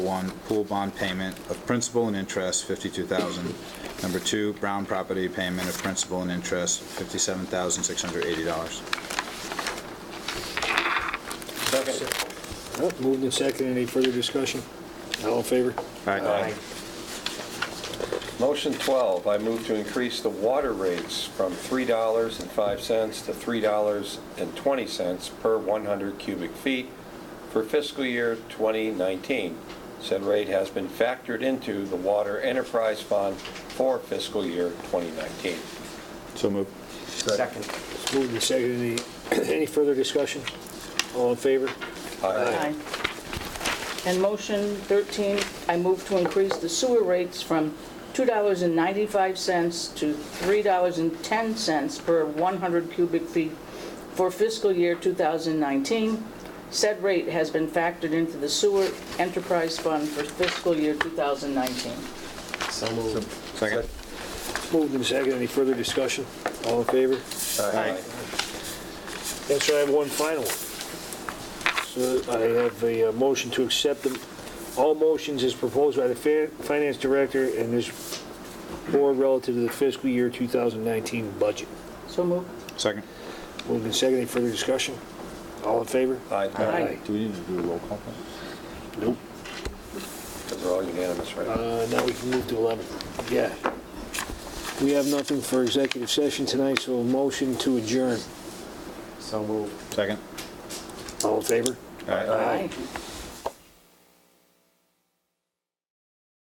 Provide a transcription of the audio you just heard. one, pool bond payment of principal and interest, 52000 Number two, Brown property payment of principal and interest, $57,680. Second. Well, Moved and seconded. Any further discussion? All in favor? Aye. Motion 12, I move to increase the water rates from $3.05 to $3.20 per 100 cubic feet for fiscal year 2019. Said rate has been factored into the Water Enterprise Fund for fiscal year 2019. So moved. Second. It's Moved and seconded. Any, any further discussion? All in favor? Aye. And motion 13, I move to increase the sewer rates from $2.95 to $3.10 per 100 cubic feet for fiscal year 2019. Said rate has been factored into the sewer enterprise fund for fiscal year 2019. So moved. Second. It's Moved and seconded. Any further discussion? All in favor? Aye. Yes, sir, I have one final one. So I have a uh, motion to accept the, all motions as proposed by the fa- finance director and this board relative to the fiscal year 2019 budget. So moved. Second. Moved and seconded. Any further discussion? All in favor? Aye. Do we need to do a roll call? Nope. Because they're all unanimous, right? Uh, Now we can move to 11. Yeah. We have nothing for executive session tonight, so a motion to adjourn. So moved. Second. All in favor? Aye. Aye.